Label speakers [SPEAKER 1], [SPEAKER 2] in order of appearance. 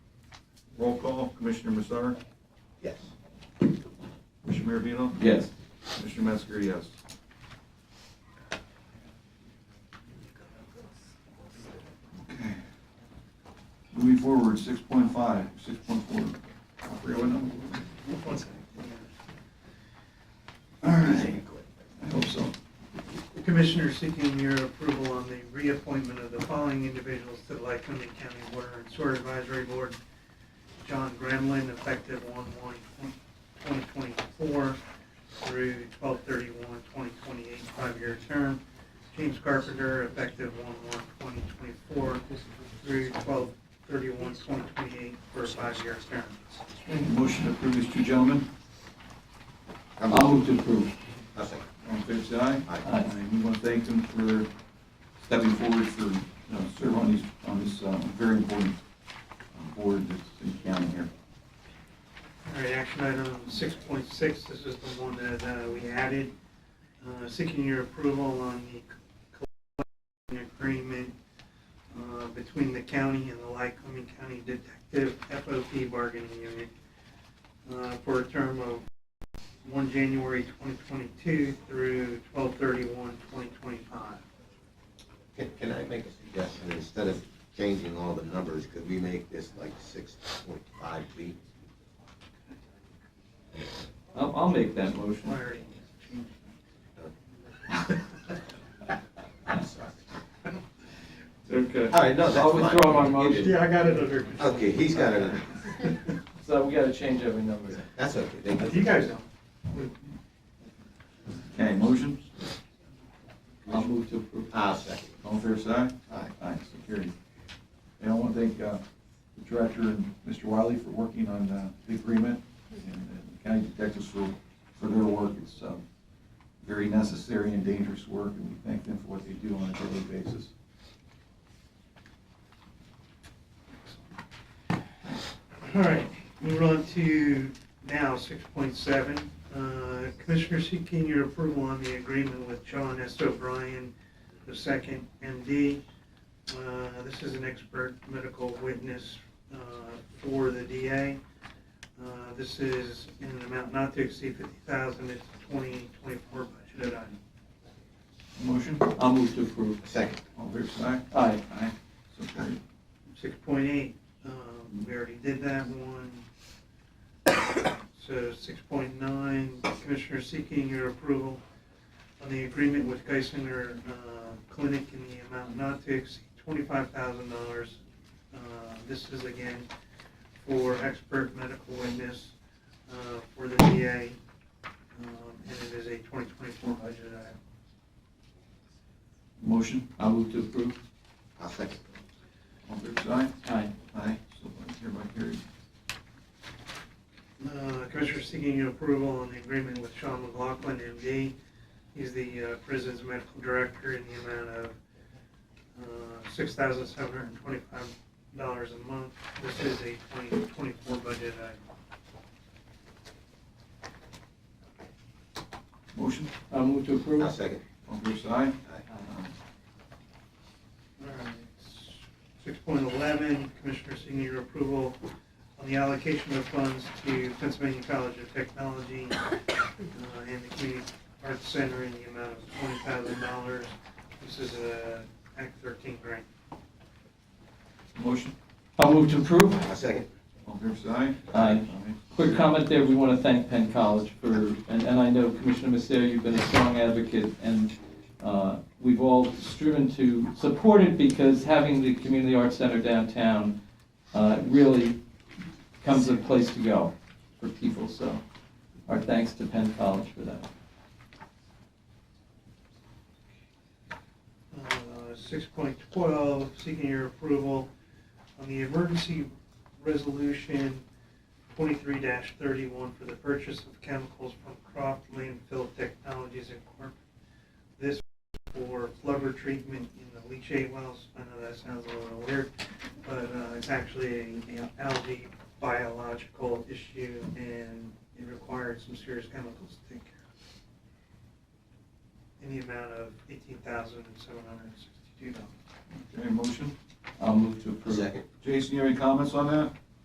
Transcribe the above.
[SPEAKER 1] Roll call, Commissioner Massar,
[SPEAKER 2] Yes.
[SPEAKER 1] Commissioner Maravito,
[SPEAKER 3] Yes.
[SPEAKER 1] Commissioner Metzger, yes. Okay. Moving forward, six point five, six point four. I forget what number. All right, I hope so.
[SPEAKER 4] The Commissioner is seeking your approval on the reappointment of the following individuals to the Lycoming County Water and Sewer Advisory Board. John Gremlin, effective one one twenty twenty-four through 1231-2028, five-year term. James Carpenter, effective one one twenty twenty-four through 1231-2028 for a five-year term.
[SPEAKER 1] Motion to approve these two gentlemen.
[SPEAKER 3] I'll move to approve.
[SPEAKER 2] I second.
[SPEAKER 1] All in favor, say aye.
[SPEAKER 2] Aye.
[SPEAKER 3] Aye.
[SPEAKER 1] And we want to thank them for stepping forward for, you know, serving on these, on this, uh, very important uh, board that's in county here.
[SPEAKER 4] All right, action item six point six, this is the one that uh, we added, Uh, seeking your approval on the collective agreement uh, between the county and the Lycoming County Detective FOP bargaining unit uh, for a term of one January twenty twenty-two through 2025.
[SPEAKER 2] Can, can I make a suggestion, instead of changing all the numbers, could we make this like six point five feet?
[SPEAKER 3] I'll, I'll make that motion.
[SPEAKER 4] Larry,
[SPEAKER 2] I'm sorry.
[SPEAKER 3] Okay.
[SPEAKER 2] All right, no, that's fine.
[SPEAKER 3] I'll withdraw my
[SPEAKER 2] You did-
[SPEAKER 3] motion.
[SPEAKER 4] Yeah, I got it under control.
[SPEAKER 2] Okay, he's got it,
[SPEAKER 3] So we gotta change every number.
[SPEAKER 2] that's okay, thank
[SPEAKER 4] You guys don't.
[SPEAKER 1] Okay, motion,
[SPEAKER 3] I'll move to approve.
[SPEAKER 2] I'll second.
[SPEAKER 1] all in favor, say aye.
[SPEAKER 2] Aye.
[SPEAKER 1] Aye, so carried. And I want to thank, uh, the director and Mr. Wiley for working on, uh, the agreement and and the county detectives for, for their work. It's, um, very necessary and dangerous work and we thank them for what they do on a daily basis.
[SPEAKER 4] All right, move on to now six point seven. Uh, Commissioner seeking your approval on the agreement with John S. O'Brien, the second MD. Uh, This is an expert medical witness uh, for the DA. Uh, This is in an amount not to exceed fifty thousand, it's twenty twenty-four budgeted item.
[SPEAKER 1] Motion,
[SPEAKER 3] I'll move to approve.
[SPEAKER 2] Second,
[SPEAKER 1] all in favor, say aye.
[SPEAKER 3] Aye.
[SPEAKER 1] Aye, so carried.
[SPEAKER 4] Six point eight, um, we already did that one. So six point nine, Commissioner seeking your approval on the agreement with Geisinger, uh, Clinic in the amount not to exceed twenty-five thousand dollars. Uh, this is again for expert medical witness, uh, for the VA, um, and it is a twenty twenty-four budget item.
[SPEAKER 1] Motion,
[SPEAKER 3] I'll move to approve.
[SPEAKER 2] I'll second.
[SPEAKER 1] all in favor, say aye.
[SPEAKER 3] Aye.
[SPEAKER 1] Aye, so hereby carried.
[SPEAKER 4] Uh, Commissioner seeking your approval on the agreement with Sean McLaughlin, MD. He's the uh, prison's medical director in the amount of uh, six thousand seven hundred and twenty-five dollars a month. This is a twenty twenty-four budget item.
[SPEAKER 1] Motion,
[SPEAKER 3] I'll move to approve.
[SPEAKER 2] I'll second.
[SPEAKER 1] all fair side?
[SPEAKER 2] Aye.
[SPEAKER 4] Six point eleven, Commissioner seeking your approval on the allocation of funds to Pennsylvania College of Technology uh, and the Community Arts Center in the amount of twenty thousand dollars. This is a Act thirteen grant.
[SPEAKER 1] Motion,
[SPEAKER 3] I'll move to approve.
[SPEAKER 2] I'll second.
[SPEAKER 1] all fair side?
[SPEAKER 3] Aye. Quick comment there, we want to thank Penn College for, and, and I know Commissioner Messere, you've been a strong advocate, and, uh, we've all striven to support it because having the Community Arts Center downtown, uh, really comes a place to go for people, so our thanks to Penn College for that.
[SPEAKER 4] Uh, Six point twelve, seeking your approval on the emergency resolution twenty-three thirty-one for the purchase of chemicals from Croft Landfill Technologies Incorporated. This for flubber treatment in the leachate wells. I know that sounds a little weird, but uh, it's actually an algae biological issue, and it requires some serious chemicals to take care of in the amount of eighteen thousand seven hundred and sixty-two dollars.
[SPEAKER 1] Okay, motion.
[SPEAKER 3] I'll move to approve.
[SPEAKER 2] Second.
[SPEAKER 1] Jason, you have any comments on that?